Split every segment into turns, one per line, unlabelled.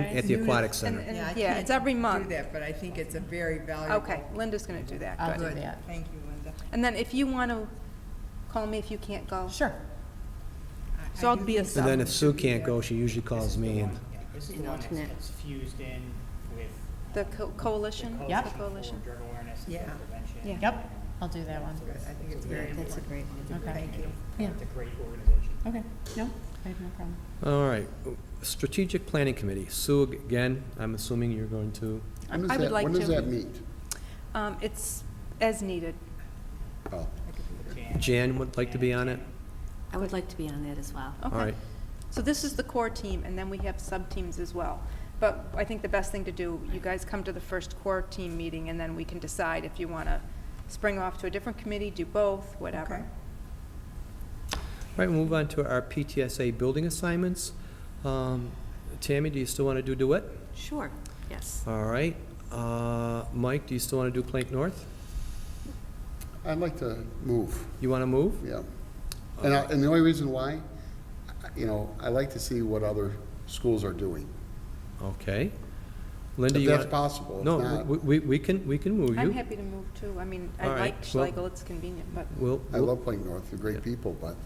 at the aquatic center.
And-
I
Yeah,
can't
it's every month.
Do that, but I think it's a very valuable.
Okay, Linda's gonna do that,
I'll
good.
do
Good,
that.
thank you, Linda.
And then if you want to, call me if you can't go.
Sure.
I-
So
I
I'll
do
be a
think
sub.
And then if Sue can't go, she usually calls me and,
This is
An
the one that's
alternate.
that's fused in with.
The
um,
co-
the
coalition,
Yep.
the coalition.
for Drug awareness and
Yeah.
drug prevention.
Yeah.
Yep, I'll do that one.
that's good. I think it's very important.
That's a great one.
Okay.
Thank you.
Yeah.
It's a great organization.
Okay, no, I have no problem.
all right. Strategic Planning Committee, Sue, again, I'm assuming you're going to,
When
I
does
would
that,
like
when does
to.
that meet?
Um, It's as needed.
Oh,
Jan-
Jan would like to be on it?
I would like to be on that as well.
All
Okay.
right.
So this is the core team, and then we have sub-teams as well. But I think the best thing to do, you guys come to the first core team meeting, and then we can decide if you want to spring off to a different committee, do both,
Okay.
whatever.
All right, we'll move on to our PTSA building assignments. Um, Tammy, do you still want to do Duet?
Sure, yes.
All right. Uh, Mike, do you still want to do Plank North?
I'd like to move,
You want to move?
yeah. And I, and the only reason why, I- you know, I like to see what other schools are doing.
Okay. Linda,
If
you want?
that's possible, if
No,
not,
we, we- we can, we can move you.
I'm happy to move too. I mean, I
All right,
like
well-
Schlegel, it's convenient, but
We'll,
I love Plank North, they're great people, but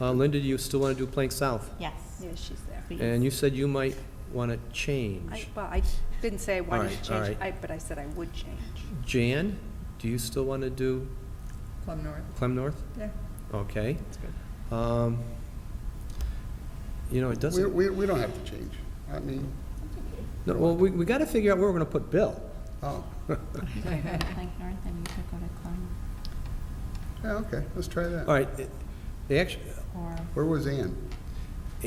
uh, Linda, do you still want to do Plank South?
Yes.
yeah, she's there.
please.
And you said you might want to
I-
change.
Well, I didn't say I wanted
right,
to
all
change,
right.
I- but I said I would change.
Jan, do you still want to do
Plum North,
Clem North?
yeah.
Okay. Um, You know, it
we,
doesn't,
we, we don't have to change. I mean,
no, well, we, we got to figure out where we're going to put Bill.
oh,
You could go to Plank North and you could go to Clem
yeah, okay, let's try
All
that.
right, it- they actually,
or,
Where was Ann?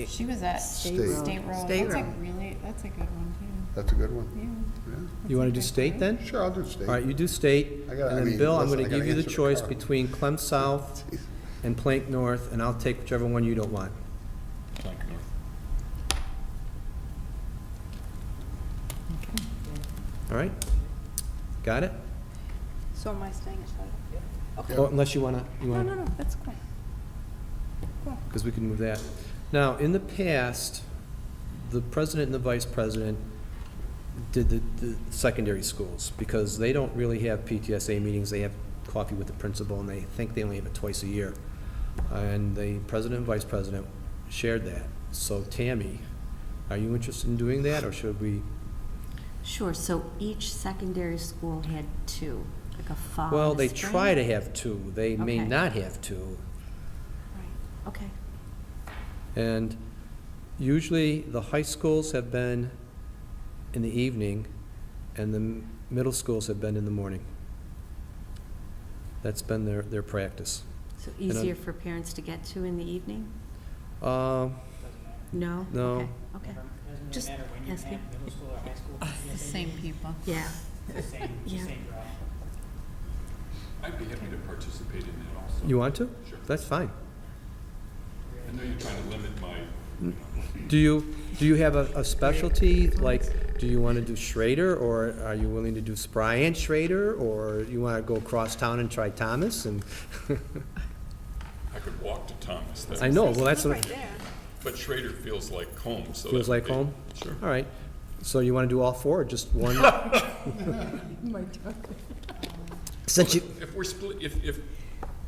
she was at
State
State
Road.
Road.
State
That's a
Road.
really, that's a good one
That's a good one,
too.
yeah.
you want to do state then?
Sure, I'll do state.
All right, you do state,
I gotta- I
and then
mean,
Bill, I'm
listen,
going
I
to
gotta
give you the
answer the
choice
car.
between Clem South
Jeez.
and Plank North, and I'll take whichever one you don't want. All right? Got it?
So am I staying at Schlegel?
Oh, Unless you want to, you
No,
want to...
no, no, that's cool.
because we can move that. Now, in the past, the president and the vice president did the, the secondary schools, because they don't really have PTSA meetings, they have coffee with the principal, and they think they only have it twice a year. And the president and vice president shared that. So Tammy, are you interested in doing that, or should we?
Sure, so each secondary school had two, like a fall
Well,
and a
they
Um, spring?
try to have two, they may
Okay.
not have two.
Right, Okay,
And usually, the high schools have been in the evening, and the m- middle schools have been in the morning. That's been their, their practice.
so
I-
easier for parents to get to in the evening?
Uh,
No?
No.
Okay, Okay, Just
Doesn't really matter when you
asking.
have middle school or high school.
It's the same people.
yeah.
It's the same, it's the
Yeah.
same route.
I'd be happy to participate in that also.
You want to?
Sure.
That's fine.
I know you're trying to limit my,
Do you, do you have a a specialty? Like, do you want to do Schrader, or are you willing to do Spry and Schrader? Or you want to go across town and try Thomas? And,
I could walk to Thomas, that's-
I know, well, that's what,
but Schrader feels like home, so.
feels
that would
like
be-
home?
Sure.
All right. So you want to do all four, or just one? Since you,
If we're split, if, if,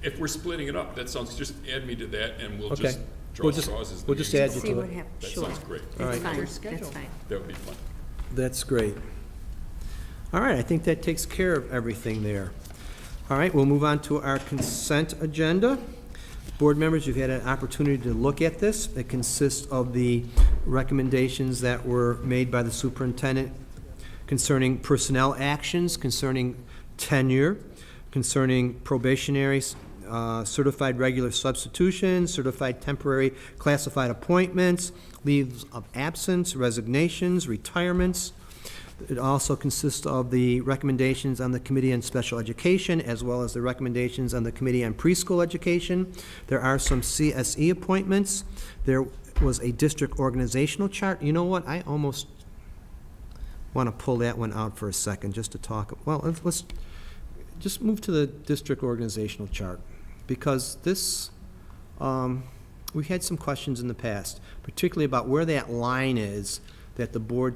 if we're splitting it up, that sounds, just add me to that and we'll
Okay.
just draw
We'll just-
straws as the.
we'll just
meeting
add
goes
you
See
to
what
it.
on.
happens,
That
sure.
sounds great.
That's
right.
fine, that's fine.
That would be fun.
That's great. All right, I think that takes care of everything there. All right, we'll move on to our consent agenda. Board members, you've had an opportunity to look at this. It consists of the recommendations that were made by the superintendent concerning personnel actions, concerning tenure, concerning probationary, uh, certified regular substitution, certified temporary classified appointments, leaves of absence, resignations, retirements. It also consists of the recommendations on the Committee on Special Education, as well as the recommendations on the Committee on Preschool Education. There are some CSE appointments. There was a district organizational chart. You know what? I almost want to pull that one out for a second, just to talk, well, let's- let's, just move to the district organizational chart, because this, um, we had some questions in the past, particularly about where that line is that the board